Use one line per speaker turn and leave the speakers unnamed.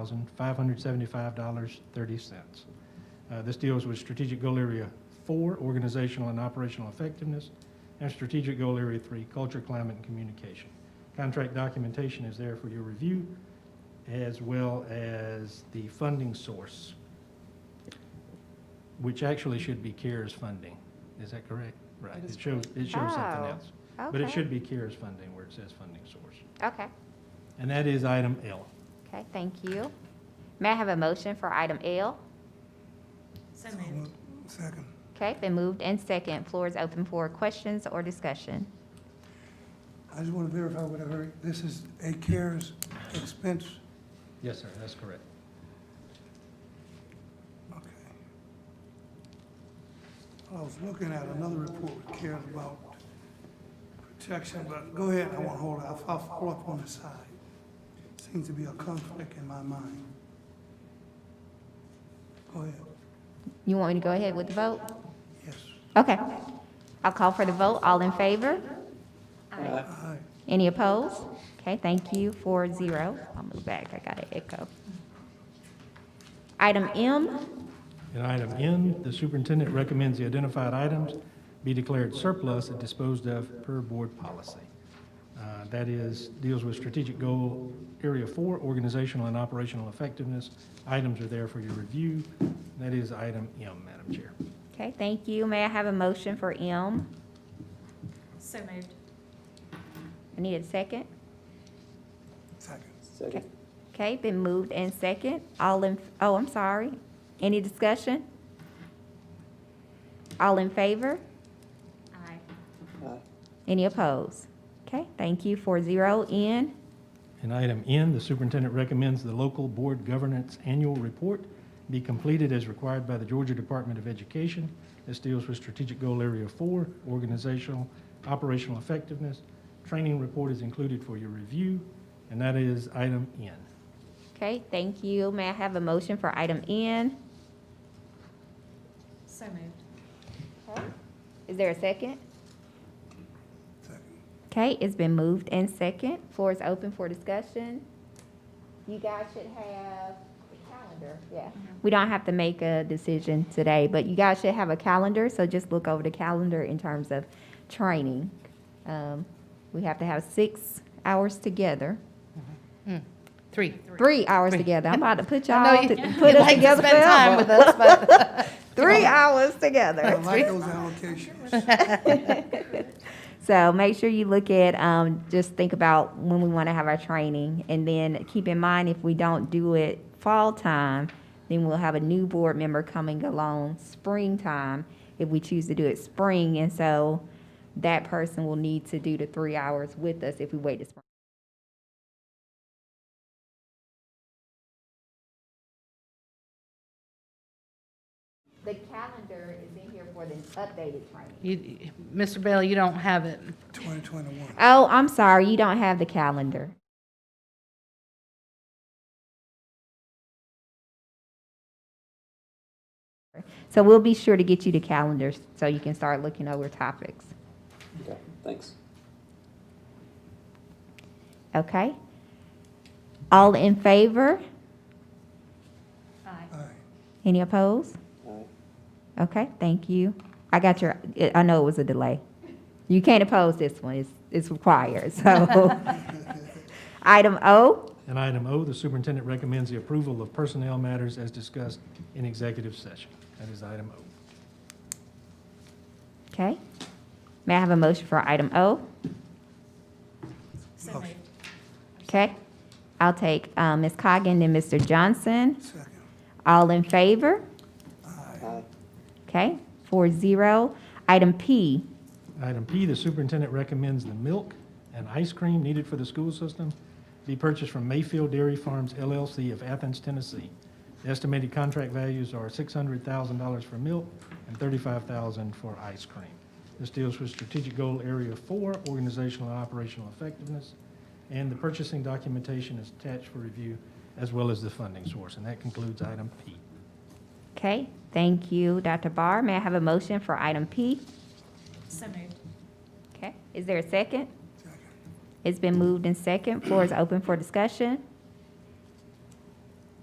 thousand five hundred seventy-five dollars thirty cents. Uh, This deals with strategic goal area four, organizational and operational effectiveness, and strategic goal area three, culture, climate, and communication. Contract documentation is there for your review, as well as the funding source, which actually should be CARES funding. Is that correct? Right. It shows, it shows something
Oh,
else.
Okay.
But it should be CARES funding where it says funding source.
Okay,
And that is item L.
okay, thank you. May I have a motion for item L?
So
So
moved.
moved. Second.
Okay, been moved and second. Floor is open for questions or discussion.
I just want to verify what I heard. This is a CARES expense.
Yes, sir, that's correct.
Okay. I was looking at another report with CARES about protection, but go ahead, I won't hold it. I'll I'll follow up on the side. Seems to be a conflict in my mind. Go ahead.
You want me to go ahead with the vote?
Yes.
Okay. I'll call for the vote. All in favor?
All right.
Any opposed? Okay, thank you, four zero. I'll move back, I got an echo. Item M,
In item N, the superintendent recommends the identified items be declared surplus and disposed of per board policy. Uh, That is, deals with strategic goal area four, organizational and operational effectiveness. Items are there for your review. That is item M, Madam Chair.
okay, thank you. May I have a motion for M?
So moved.
I need a second.
Second.
Okay, Okay, been moved and second. All in, oh, I'm sorry. Any discussion? All in favor?
Aye.
Any opposed? Okay, thank you, four zero. N,
In item N, the superintendent recommends the local board governance annual report be completed as required by the Georgia Department of Education. This deals with strategic goal area four, organizational, operational effectiveness. Training report is included for your review, and that is item N.
okay, thank you. May I have a motion for item N?
So moved.
Is there a second?
Second.
Okay, it's been moved and second. Floor is open for discussion. You guys should have a calendar, yeah.
Mm-hmm.
We don't have to make a decision today, but you guys should have a calendar, so just look over the calendar in terms of training. Um, we have to have six hours together,
Three.
three hours together. I'm about to put y'all,
you-
to- put us together
Spend time
forever.
with us, but
Three hours
I
together.
like those allocations.
So make sure you look at, um, just think about when we want to have our training. And then keep in mind, if we don't do it fall time, then we'll have a new board member coming along springtime if we choose to do it spring. And so that person will need to do the three hours with us if we wait to spring. The calendar is in here for the updated training.
you, Mr. Bailey, you don't have it.
2021.
Oh, I'm sorry, you don't have the calendar. So we'll be sure to get you the calendars so you can start looking over topics.
Okay, thanks.
Okay? All in favor?
Aye.
All right.
Any opposed?
All right.
Okay, thank you. I got your, I know it was a delay. You can't oppose this one, it's, it's required, so. Item O?
In item O, the superintendent recommends the approval of personnel matters as discussed in executive session. That is item O.
Okay. May I have a motion for item O?
So
Motion.
moved.
Okay. I'll take uh, Ms. Coggan and Mr. Johnson.
Second.
All in favor?
Aye.
Aye.
Okay, four zero. Item P,
Item P, the superintendent recommends the milk and ice cream needed for the school system be purchased from Mayfield Dairy Farms LLC of Athens, Tennessee. The Estimated contract values are $600,000 for milk and $35,000 for ice cream. This deals with strategic goal area four, organizational and operational effectiveness, and the purchasing documentation is attached for review, as well as the funding source. And that concludes item P.
okay. Thank you, Dr. Barr. May I have a motion for item P?
So moved.
Okay, is there a second?
Second.
It's been moved and second. Floor is open for discussion.